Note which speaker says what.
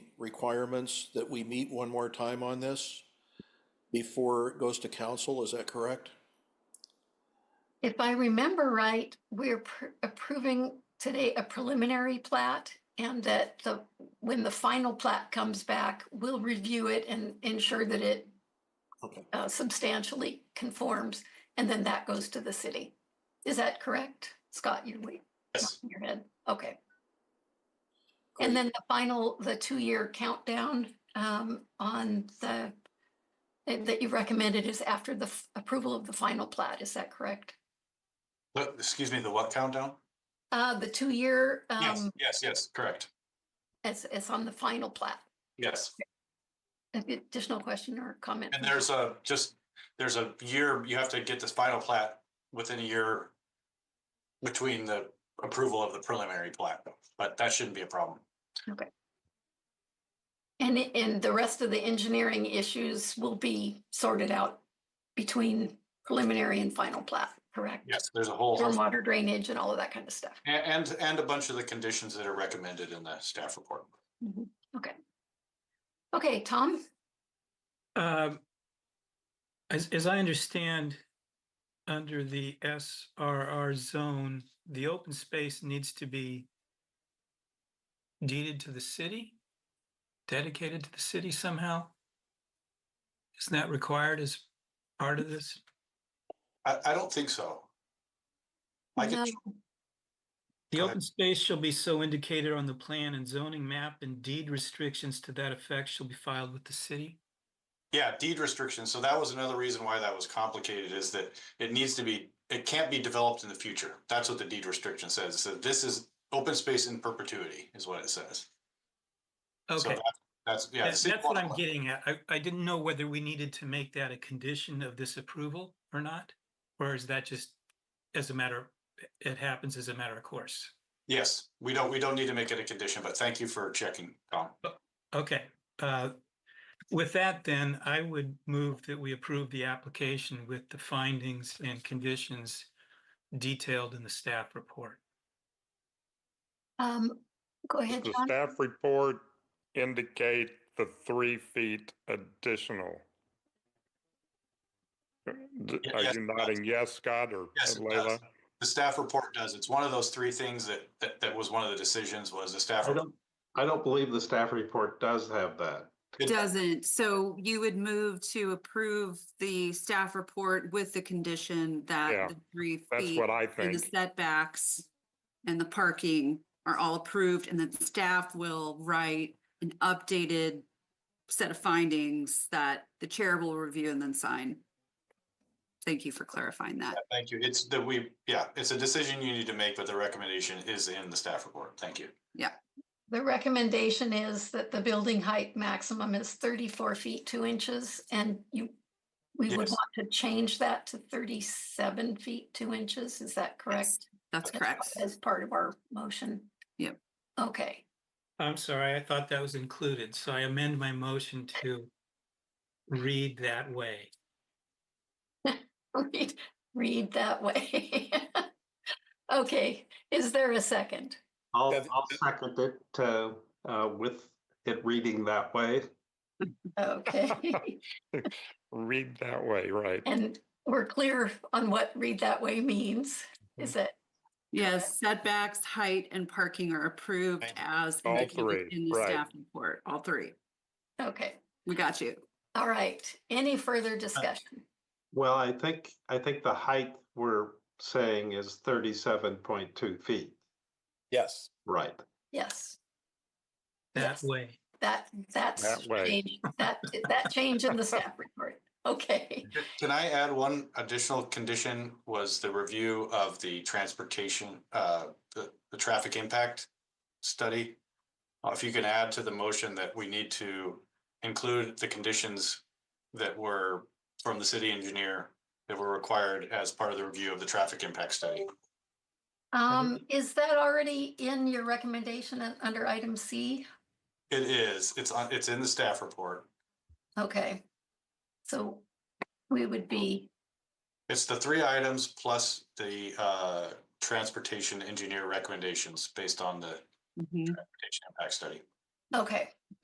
Speaker 1: requirements that we meet one more time on this before it goes to council, is that correct?
Speaker 2: If I remember right, we're pr- approving today a preliminary plat and that the, when the final plat comes back, we'll review it and ensure that it
Speaker 1: Okay.
Speaker 2: uh, substantially conforms, and then that goes to the city. Is that correct? Scott, you're wait-
Speaker 3: Yes.
Speaker 2: nodding your head, okay. And then the final, the two-year countdown um, on the, that you recommended is after the f- approval of the final plat, is that correct?
Speaker 3: What- excuse me, the what countdown?
Speaker 2: Uh, the two-year,
Speaker 3: Yes,
Speaker 2: um,
Speaker 3: yes, yes, correct.
Speaker 2: it's, it's on the final plat.
Speaker 3: Yes.
Speaker 2: Additional question or comment?
Speaker 3: And there's a, just, there's a year, you have to get this final plat within a year between the approval of the preliminary plat, but that shouldn't be a problem.
Speaker 2: And, i- and the rest of the engineering issues will be sorted out between preliminary and final plat, correct?
Speaker 3: Yes, there's a whole, host-
Speaker 2: Stormwater drainage and all of that kind of stuff.
Speaker 3: a- and, and a bunch of the conditions that are recommended in the staff report.
Speaker 2: Okay. Okay, Tom,
Speaker 4: Um, As, as I understand, under the SRR zone, the open space needs to be deeded to the city, dedicated to the city somehow? Isn't that required as part of this?
Speaker 3: I, I don't think so. I
Speaker 2: No.
Speaker 3: can,
Speaker 4: The
Speaker 3: Go ahead.
Speaker 4: open space shall be so indicated on the plan and zoning map and deed restrictions to that effect shall be filed with the city?
Speaker 3: yeah, deed restrictions. So that was another reason why that was complicated is that it needs to be, it can't be developed in the future. That's what the deed restriction says. So this is open space in perpetuity is what it says. So
Speaker 4: Okay.
Speaker 3: that- That's, yeah.
Speaker 4: That-
Speaker 3: the city
Speaker 4: That's what I'm
Speaker 3: wants-
Speaker 4: getting at. I, I didn't know whether we needed to make that a condition of this approval or not. Or is that just as a matter, it happens as a matter of course?
Speaker 3: Yes, we don't, we don't need to make it a condition, but thank you for checking, Tom.
Speaker 4: Okay, uh, with that then, I would move that we approve the application with the findings and conditions detailed in the staff report.
Speaker 2: um, go
Speaker 5: Does
Speaker 2: ahead,
Speaker 5: the
Speaker 2: John.
Speaker 5: staff report indicate the three feet additional? D-
Speaker 3: Ye-
Speaker 5: Are
Speaker 3: yes,
Speaker 5: you
Speaker 3: it does.
Speaker 5: nodding yes, Scott or
Speaker 3: Yes, it does.
Speaker 5: Leila?
Speaker 3: The staff report does. It's one of those three things that, that, that was one of the decisions was the staff.
Speaker 6: I don't, I don't believe the staff report does have that.
Speaker 3: It-
Speaker 7: Doesn't, so you would move to approve the staff report with the condition
Speaker 5: Yeah,
Speaker 7: that the three
Speaker 5: That's
Speaker 7: feet.
Speaker 5: what I
Speaker 7: And the
Speaker 5: think.
Speaker 7: setbacks and the parking are all approved and then staff will write an updated set of findings that the chair will review and then sign. Thank you for clarifying that.
Speaker 3: Thank you. It's that we, yeah, it's a decision you need to make, but the recommendation is in the staff report. Thank you.
Speaker 2: The recommendation is that the building height maximum is thirty-four feet, two inches, and you, we would
Speaker 3: Yes.
Speaker 2: want to change that to thirty-seven feet, two inches, is that correct?
Speaker 7: That's
Speaker 2: As-
Speaker 7: correct.
Speaker 2: As part of our motion?
Speaker 7: Yep.
Speaker 2: Okay,
Speaker 4: I'm sorry, I thought that was included, so I amend my motion to read that way.
Speaker 2: read, read that way. Okay, is there a second?
Speaker 6: I'll,
Speaker 8: Yeah, the-
Speaker 6: I'll second it to, uh, with it reading that way.
Speaker 2: Okay,
Speaker 5: Read that way, right?
Speaker 2: and we're clear on what read that way means,
Speaker 7: Mm-hmm.
Speaker 2: is it?
Speaker 7: Yes, setbacks, height and parking are approved
Speaker 3: Thank you.
Speaker 7: as
Speaker 5: All
Speaker 7: indicated
Speaker 5: three,
Speaker 7: in the
Speaker 5: right.
Speaker 7: staff report, all three.
Speaker 2: Okay,
Speaker 7: We got you.
Speaker 2: all right, any
Speaker 7: Uh,
Speaker 2: further discussion?
Speaker 6: Well, I think, I think the height we're saying is thirty-seven point two feet,
Speaker 8: Yes.
Speaker 6: right?
Speaker 2: Yes.
Speaker 4: That
Speaker 2: Yes.
Speaker 4: way.
Speaker 2: That, that's
Speaker 5: That way.
Speaker 2: change, that, that change in the staff report. Okay,
Speaker 3: Can I add one additional condition was the review of the transportation, uh, the, the traffic impact study? Uh, If you can add to the motion that we need to include the conditions that were from the city engineer that were required as part of the review of the traffic impact study.
Speaker 2: um, is that already in your recommendation un- under item C?
Speaker 3: It is, it's on, it's in the staff report.
Speaker 2: Okay. So we would be,
Speaker 3: It's the three items plus the, uh, transportation engineer recommendations based on the
Speaker 7: Mhm.
Speaker 3: transportation impact study.
Speaker 2: okay.